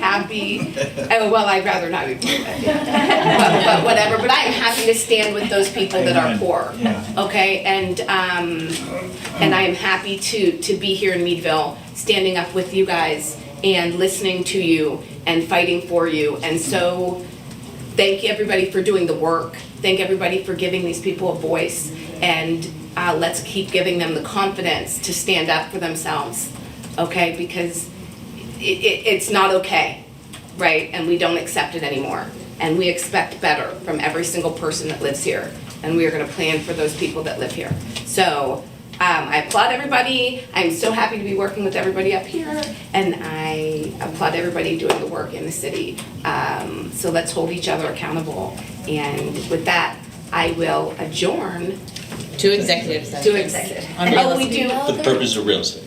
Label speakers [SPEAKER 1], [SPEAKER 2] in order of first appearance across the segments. [SPEAKER 1] not be, oh, well, I'd rather not be poor. but- But, but whatever, but I am happy to stand with those people that are
[SPEAKER 2] Amen.
[SPEAKER 1] poor.
[SPEAKER 2] Yeah.
[SPEAKER 1] Okay, and, um, and I am happy to, to be here in Meadville, standing up with you guys and listening to you and fighting for you. And so, thank everybody for doing the work. Thank everybody for giving these people a voice. And uh, let's keep giving them the confidence to stand up for themselves, okay? Because it, it, it's not okay, right? And we don't accept it anymore. And we expect better from every single person that lives here. And we are going to plan for those people that live here. So um, I applaud everybody. I'm so happy to be working with everybody up here. And I applaud everybody doing the work in the city. Um, so let's hold each other accountable. And with that, I will adjourn
[SPEAKER 3] Two executive sessions.
[SPEAKER 1] to executive.
[SPEAKER 3] On
[SPEAKER 1] Oh, we do.
[SPEAKER 3] real
[SPEAKER 2] For the purpose of real estate.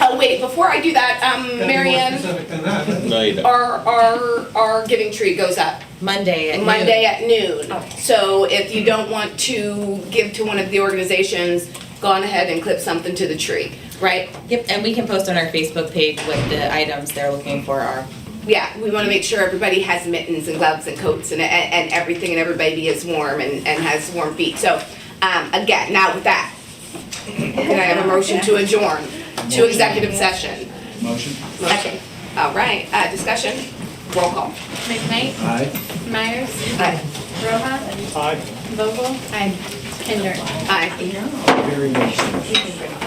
[SPEAKER 1] Oh, wait, before I do that, um,
[SPEAKER 4] Gotta be more
[SPEAKER 1] Mary Ann,
[SPEAKER 4] specific than that.
[SPEAKER 2] No, you don't.
[SPEAKER 1] our, our, our giving tree goes up.
[SPEAKER 3] Monday at noon.
[SPEAKER 1] Monday at noon. So if you don't want to give to one of the organizations, go on ahead and clip something to the tree, right?
[SPEAKER 3] Yep, and we can post on our Facebook page what the items they're looking for are.
[SPEAKER 1] Yeah, we want to make sure everybody has mittens and gloves and coats and, and, and everything and everybody is warm and, and has warm feet. So, um, again, now with that, can I have a motion to adjourn to executive session?
[SPEAKER 2] Motion?
[SPEAKER 1] Second. All right, uh, discussion, roll call.
[SPEAKER 5] McKnight,
[SPEAKER 2] Aye.
[SPEAKER 5] Myers,
[SPEAKER 1] Aye.
[SPEAKER 5] Rohan,
[SPEAKER 2] Aye.
[SPEAKER 5] Vogel, and Kinder.
[SPEAKER 1] Aye.
[SPEAKER 2] Very much.
[SPEAKER 1] Aye.